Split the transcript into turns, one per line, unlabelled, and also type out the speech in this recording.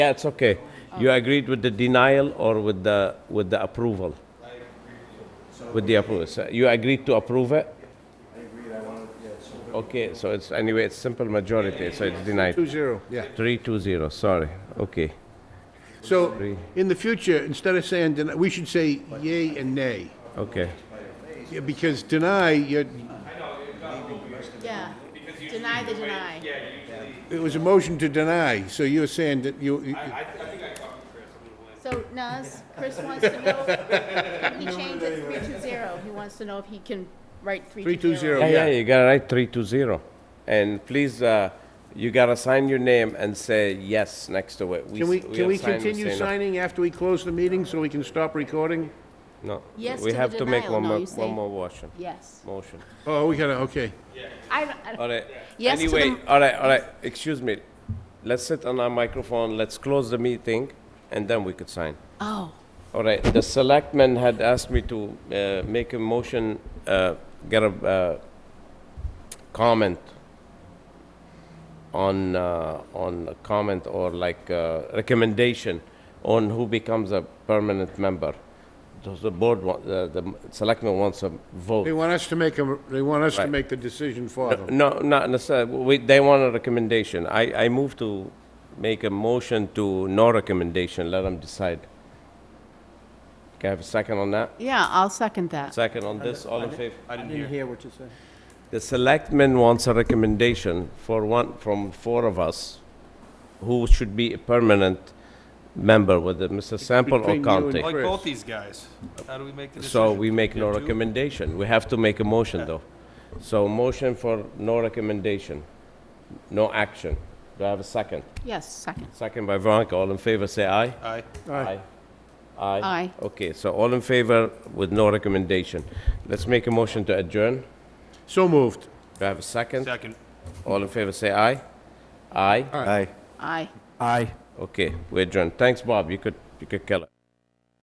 Yeah, it's okay. You agreed with the denial or with the, with the approval? With the approval, So you agreed to approve it? I agreed, I wanted, Okay, so it's, anyway, it's simple majority, so it's denied.
Two zero, yeah.
Three, two, zero, sorry, okay.
So, in the future, instead of saying deny, we should say yay and nay.
Okay,
Yeah, Because deny, you're,
Yeah. Deny the deny.
it was a motion to deny, so you're saying that you, you-
So Nas, Chris wants to know, if he changed it three two zero, he wants to know if he can write three
Three two zero.
Oh,
yeah, yeah,
Yeah.
you gotta write three, two, zero. And please, uh, you gotta sign your name and say yes next to it.
can we,
s-
can
are
we
signed,
continue
say no.
signing after we close the meeting so we can stop recording?
No.
Yes
We
to the
have to make
denial,
one
no,
more,
you say-
one more motion,
Yes.
motion.
Oh, we gotta, okay.
I, don't- I,
All
don't-
right.
Yes to the-
Anyway, all right, all right, excuse me. Let's sit on our microphone, let's close the meeting, and then we could sign.
oh,
All right, the selectman had asked me to uh, make a motion, uh, get a uh, comment on, uh, on a comment or like uh, recommendation on who becomes a permanent member. Does The board, wa- uh, the selectman wants a vote.
They want us to make a, they want us to
Right.
make the decision for them.
No, not necessarily. We, they want a recommendation. I, I move to make a motion to no recommendation, let them decide. Can I have a second on that?
yeah, I'll second that.
Second on this, all in favor?
I didn't hear what you said.
The selectman wants a recommendation for one, from four of us, who should be a permanent member, whether Mr. Sample or
Between you and
Conte.
Like
Like
Chris. both
both these guys. How do we make the decision?
So we make no recommendation. We have to make a motion, though. So motion for no recommendation, no action. Do I have a second?
Yes, second.
Second by Veronica, all in favor, say aye.
Aye.
Aye.
Aye.
Aye.
Okay, so all in favor with no recommendation. Let's make a motion to adjourn.
So moved.
Do I have a second?
Second.
All in favor, say aye. Aye.
Aye.
Aye.
Aye.
Okay, we adjourn. Thanks, Bob, you could, you could kill it.